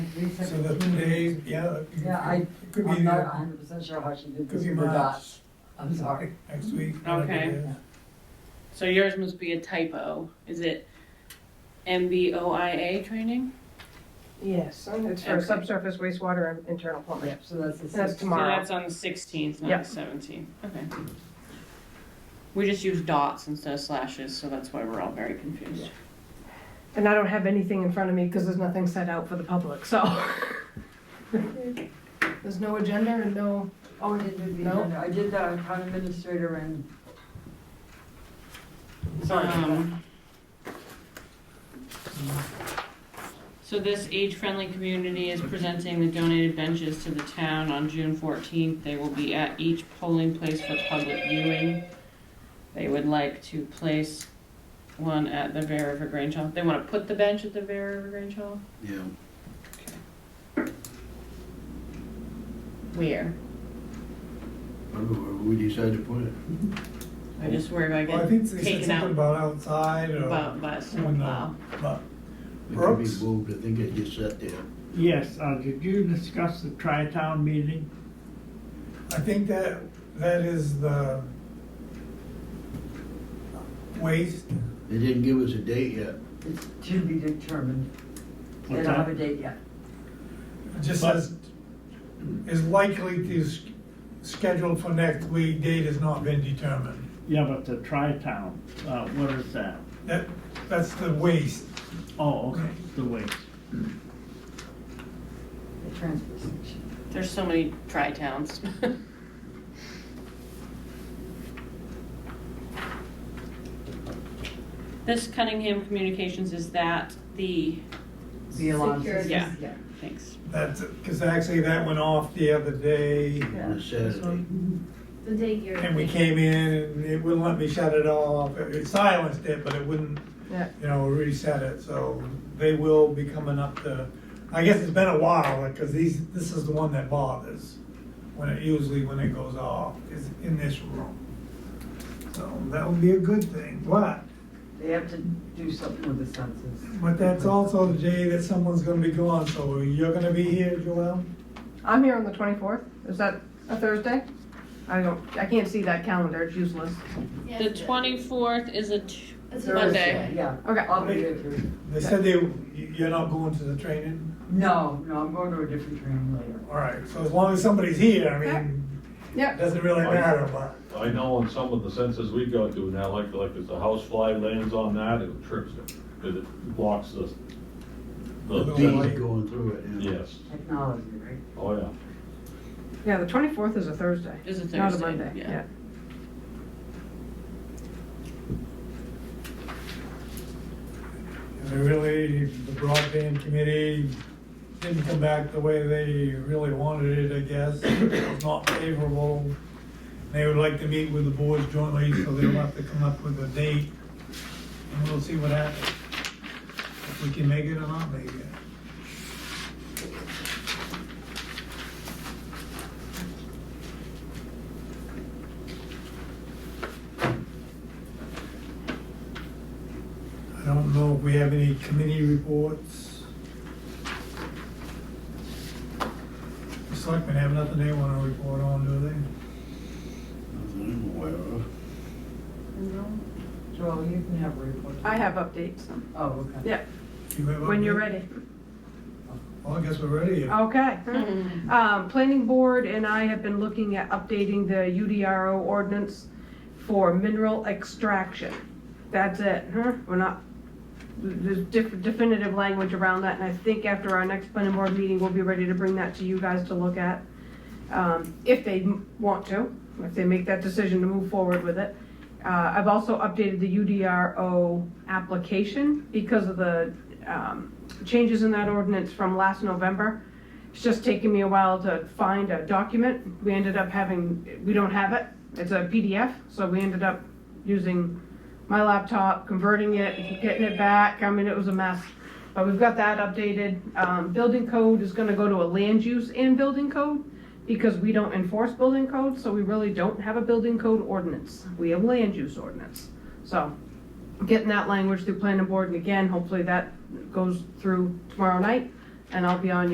these So different that communities. today, yeah. it could Yeah, be- I, it Could be, I'm not the- hundred percent sure how she did could this be in the dot, March, I'm sorry. next week. Okay. whatever it is. So yours must be a typo. Is it MBOIA training? Yes, and it's for Okay. subsurface wastewater and internal plumbing. Yep, so that's the That's sixth. So tomorrow. that's on the sixteenth, Yeah. not the seventeenth. Okay. We just use dots instead of slashes, so that's why we're all very confused. And I don't have anything in front of me because there's nothing set out for the public, so. There's no agenda and no, Oh, I did do the No? agenda, I did the town administrator and. Sorry. Um, So this age-friendly community is presenting the donated benches to the town on June fourteenth. They will be at each polling place for public viewing. They would like to place one at the Bear River Grange Hall. They want to put the bench at the Bear River Grange Hall? Yeah, Where? I don't know where we decide to put it. I just worry about Well, I think getting they said taken something out about outside or. by, by a snowplow. But, It could be Brooks? moved, I think it just sat there. Yes, uh, did you discuss the tri-town meeting? I think that, that is the waste, They didn't give us a date yet. It's to be determined, they What's don't have that? a date yet. It just says, is likely to s- scheduled for next week, date has not been determined. Yeah, but the tri-town, uh, what is that? That, that's the waste. Oh, okay, the waste. The transfer station. There's so many tri-towns. This Cunningham Communications, is that the, The alarm Security. system. Yeah. thanks. That's, because actually that went off the other day, On a Saturday. The day you're. and we came in, and it wouldn't let me shut it off. It it silenced it, but it wouldn't, yeah. you know, reset it, so they will be coming up to, I guess it's been a while, because these, this is the one that bothers, when it, usually when it goes off, is in this room. So that would be a good thing, but, They have to do something with the census. but that's also the day that someone's gonna be gone, so you're gonna be here, Joel? I'm here on the twenty-fourth. Is that a Thursday? I don't, I can't see that calendar. It's useless. Yeah, The it's a- twenty-fourth is a, t- it's a Thursday, Monday. Yeah. Okay. I'll be there too. They said they, you're not going to the training? No, no, I'm going to a different training later. All right, so as long as somebody's here, I mean, Yep. doesn't really matter, but. I know in some of the census we go to now, like, like if the house fly lands on that, it trips it, because it blocks the, the The feed. light. Feet going through it, yeah. Yes, Technology, right? oh yeah. Yeah, the twenty-fourth is a Thursday. Is a Not a Thursday, Monday, yeah. yeah. They really, the broadband committee didn't come back the way they really wanted it, I guess. It was not favorable. They would like to meet with the boards jointly, so they'll have to come up with a date. And we'll see what happens. If we can make it or not make it. I don't know if we have any committee reports. The selectmen have nothing they want to report on, do they? I'm aware of. Joel, you can have a report. I have updates. Oh, okay. Yeah, Do you have when you're update? ready. Oh, Well, I guess we're ready. Okay. Um, Planning Board and I have been looking at updating the UDRO ordinance for mineral extraction. That's it, huh? We're not, there's def- definitive language around that, and I think after our next planning board meeting, we'll be ready to bring that to you guys to look at. um, if they m- want to, if they make that decision to move forward with it. Uh, I've also updated the UDRO application because of the um, changes in that ordinance from last November. It's just taken me a while to find a document. We ended up having, we don't have it. It's a PDF, so we ended up using my laptop, converting it, getting it back. I mean, it was a mess. But we've got that updated. Um, Building code is gonna go to a land use and building code because we don't enforce building code, so we really don't have a building code ordinance. We have land use ordinance. So getting that language through planning board, and again, hopefully that goes through tomorrow night, and I'll be on